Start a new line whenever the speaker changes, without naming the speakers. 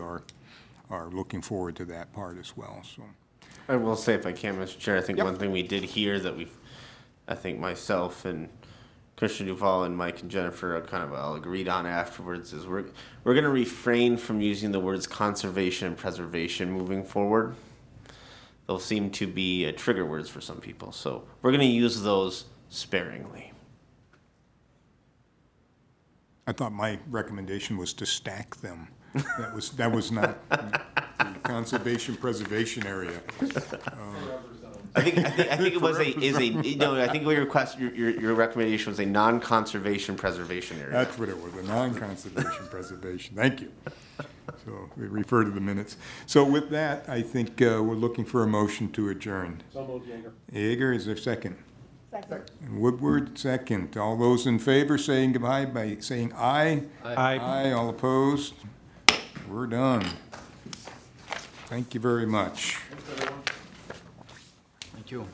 are, are looking forward to that part as well, so.
I will say, if I can, Mr. Chair, I think
Yep.
one thing we did hear that we've, I think myself and Christian Duval and Mike and Jennifer are kind of all agreed on afterwards is we're we're going to refrain from using the words conservation and preservation moving forward. They'll seem to be uh, trigger words for some people, so we're going to use those sparingly.
I thought my recommendation was to stack them. That was, that was not the conservation preservation area.
I think I think, I think it was a is a no. I think your request your your, your recommendation was a non-conservation preservation area.
That's what it was, a non-conservation preservation. Thank you. So we refer to the minutes. So with that, I think uh, we're looking for a motion to adjourn.
So moved, Jaeger.
Yeager, is there a second?
Second.
Woodward, second. All those in favor saying goodbye by saying aye. Aye. Aye, all opposed. We're done. Thank you very much.
Thank you.